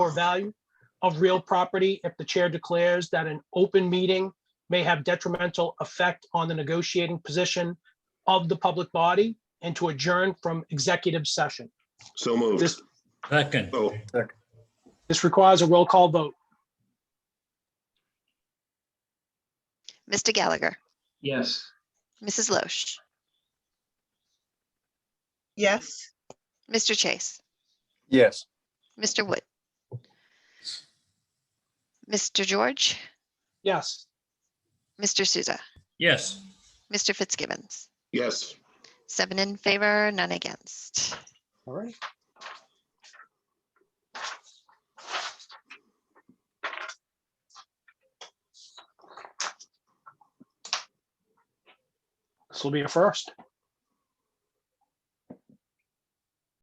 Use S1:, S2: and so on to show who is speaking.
S1: or value of real property if the chair declares that an open meeting may have detrimental effect on the negotiating position of the public body and to adjourn from executive session.
S2: So moved.
S1: This,
S3: Second,
S2: Oh,
S1: this requires a roll call vote.
S4: Mr. Gallagher,
S5: Yes.
S4: Mrs. Loesch,
S6: Yes.
S4: Mr. Chase,
S7: Yes.
S4: Mr. Wood. Mr. George,
S1: Yes,
S4: Mr. Souza,
S3: yes.
S4: Mr. Fitzgibbons,
S2: yes.
S4: seven in favor, none against.
S1: all right. This will be a first.